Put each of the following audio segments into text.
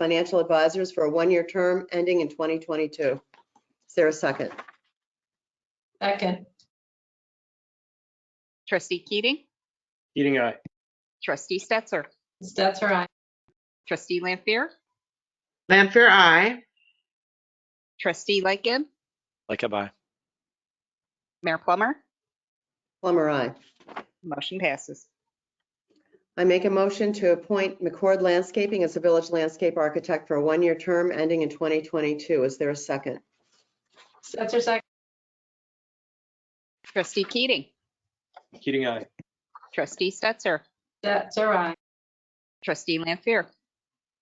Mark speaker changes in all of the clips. Speaker 1: Financial Advisors for a one-year term ending in 2022. Is there a second?
Speaker 2: Second,
Speaker 3: Trustee Keating,
Speaker 4: Keating, aye.
Speaker 3: trustee Stetser,
Speaker 2: Stetser, aye.
Speaker 3: trustee Lampier,
Speaker 5: Lampier, I.
Speaker 3: trustee Lightgib,
Speaker 4: Lightgib, aye.
Speaker 3: Mayor Plummer,
Speaker 1: Plummer, I.
Speaker 3: motion passes.
Speaker 1: I make a motion to appoint McCord Landscaping as a village landscape architect for a one-year term ending in 2022. Is there a second?
Speaker 2: Stetser, second.
Speaker 3: Trustee Keating,
Speaker 4: Keating, aye.
Speaker 3: trustee Stetser,
Speaker 2: Stetser, aye.
Speaker 3: trustee Lampier,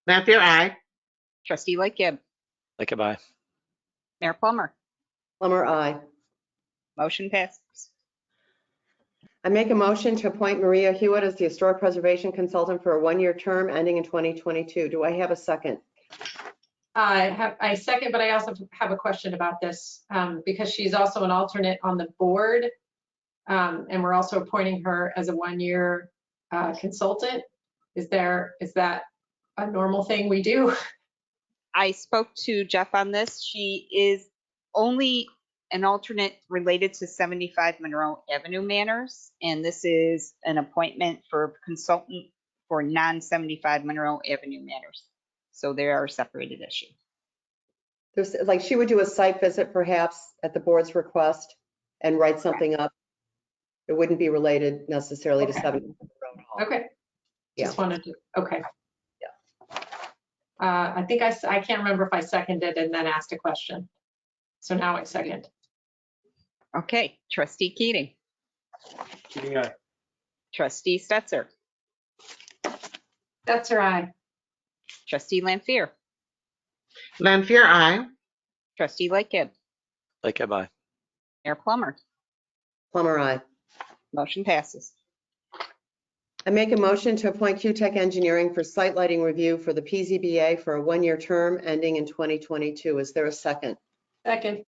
Speaker 5: Lampier, I.
Speaker 3: trustee Lightgib,
Speaker 4: Lightgib, aye.
Speaker 3: Mayor Plummer,
Speaker 1: Plummer, I.
Speaker 3: motion passes.
Speaker 1: I make a motion to appoint Maria Hewitt as the historic preservation consultant for a one-year term ending in 2022. Do I have a second?
Speaker 2: I have, I second, but I also have a question about this, um, because she's also an alternate on the board. Um, and we're also appointing her as a one-year, uh, consultant. Is there, is that a normal thing we do?
Speaker 3: I spoke to Jeff on this. She is only an alternate related to 75 Monroe Avenue Manors. And this is an appointment for consultant for non-75 Monroe Avenue Manors. So they are separated issues.
Speaker 1: There's, like, she would do a site visit perhaps at the board's request and write something up. It wouldn't be related necessarily to
Speaker 2: Okay.
Speaker 1: 70.
Speaker 2: Okay. Just
Speaker 1: Yeah.
Speaker 2: wanted to, okay. Uh, I think I, s- I can't remember if I seconded and then asked a question. So now I second.
Speaker 3: Okay, trustee Keating,
Speaker 4: Keating, aye.
Speaker 3: trustee Stetser,
Speaker 2: Stetser, aye.
Speaker 3: trustee Lampier,
Speaker 5: Lampier, I.
Speaker 3: trustee Lightgib,
Speaker 4: Lightgib, aye.
Speaker 3: Mayor Plummer,
Speaker 1: Plummer, I.
Speaker 3: motion passes.
Speaker 1: I make a motion to appoint Q-Tech Engineering for site lighting review for the PZBA for a one-year term ending in 2022. Is there a second?
Speaker 2: Second,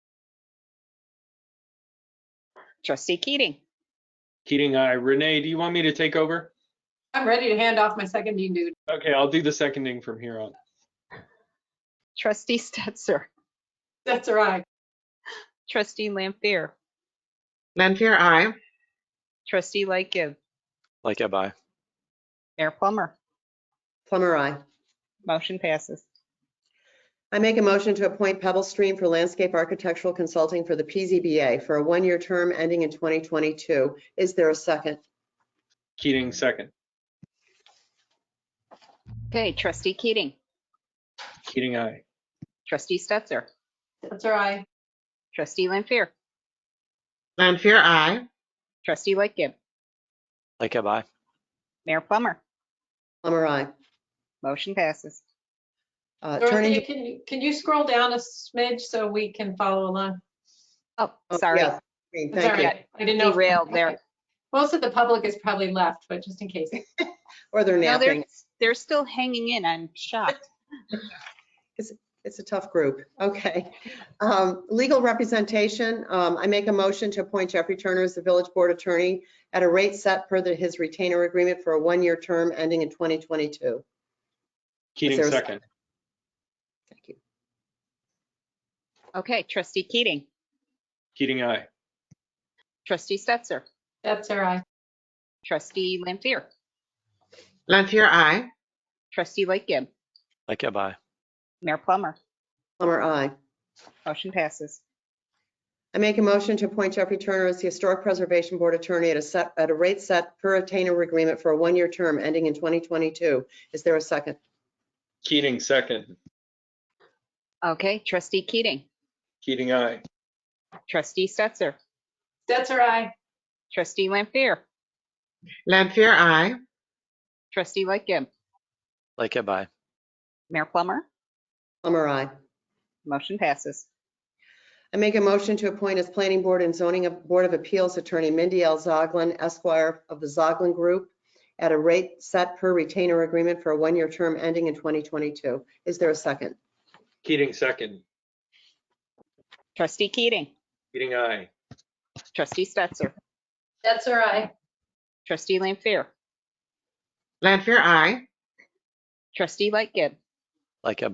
Speaker 3: Trustee Keating,
Speaker 4: Keating, aye. Renee, do you want me to take over?
Speaker 2: I'm ready to hand off my seconding dude.
Speaker 4: Okay, I'll do the seconding from here on.
Speaker 3: trustee Stetser,
Speaker 2: Stetser, aye.
Speaker 3: trustee Lampier,
Speaker 5: Lampier, I.
Speaker 3: trustee Lightgib,
Speaker 4: Lightgib, aye.
Speaker 3: Mayor Plummer,
Speaker 1: Plummer, I.
Speaker 3: motion passes.
Speaker 1: I make a motion to appoint Pebble Stream for landscape architectural consulting for the PZBA for a one-year term ending in 2022. Is there a second?
Speaker 4: Keating, second.
Speaker 3: Okay, trustee Keating,
Speaker 4: Keating, aye.
Speaker 3: trustee Stetser,
Speaker 2: Stetser, aye.
Speaker 3: trustee Lampier,
Speaker 5: Lampier, I.
Speaker 3: trustee Lightgib,
Speaker 4: Lightgib, aye.
Speaker 3: Mayor Plummer,
Speaker 1: Plummer, I.
Speaker 3: motion passes.
Speaker 1: Uh,
Speaker 2: Dorothea,
Speaker 1: turning-
Speaker 2: can you, can you scroll down a smidge so we can follow along?
Speaker 3: Oh,
Speaker 1: oh,
Speaker 3: sorry,
Speaker 1: yes, Green,
Speaker 2: It's all
Speaker 1: Thank you.
Speaker 2: right. I didn't know. if-
Speaker 3: derailed
Speaker 2: okay.
Speaker 3: there.
Speaker 2: Most of the public is probably left, but just in case.
Speaker 1: Or they're
Speaker 3: No, they're,
Speaker 1: napping.
Speaker 3: they're still hanging in. I'm shocked.
Speaker 1: It's a tough group. Okay. Um, Legal representation, um, I make a motion to appoint Jeffrey Turner as the village board attorney at a rate set per the- his retainer agreement for a one-year term ending in 2022.
Speaker 4: Keating,
Speaker 1: there a
Speaker 4: second.
Speaker 1: Thank you.
Speaker 3: Okay, trustee Keating,
Speaker 4: Keating, aye.
Speaker 3: trustee Stetser,
Speaker 2: Stetser, aye.
Speaker 3: trustee Lampier,
Speaker 5: Lampier, I.
Speaker 3: trustee Lightgib,
Speaker 4: Lightgib, aye.
Speaker 3: Mayor Plummer,
Speaker 1: Plummer, I.
Speaker 3: motion passes.
Speaker 1: I make a motion to appoint Jeffrey Turner as the Historic Preservation Board Attorney at a set, at a rate set per retainer agreement for a one-year term ending in 2022. Is there a second?
Speaker 4: Keating, second.
Speaker 3: Okay, trustee Keating,
Speaker 4: Keating, aye.
Speaker 3: trustee Stetser,
Speaker 2: Stetser, aye.
Speaker 3: trustee Lampier,
Speaker 5: Lampier, I.
Speaker 3: trustee Lightgib,
Speaker 4: Lightgib, aye.
Speaker 3: Mayor Plummer,
Speaker 1: Plummer, I.
Speaker 3: motion passes.
Speaker 1: I make a motion to appoint as Planning Board and Zoning of- Board of Appeals Attorney Mindy L. Zoglin Esquire of the Zoglin Group at a rate set per retainer agreement for a one-year term ending in 2022. Is there a second?
Speaker 4: Keating, second.
Speaker 3: Trustee Keating,
Speaker 4: Keating, aye.
Speaker 3: trustee Stetser,
Speaker 2: Stetser, aye.
Speaker 3: trustee Lampier,
Speaker 5: Lampier, I.
Speaker 3: trustee Lightgib,
Speaker 6: Like a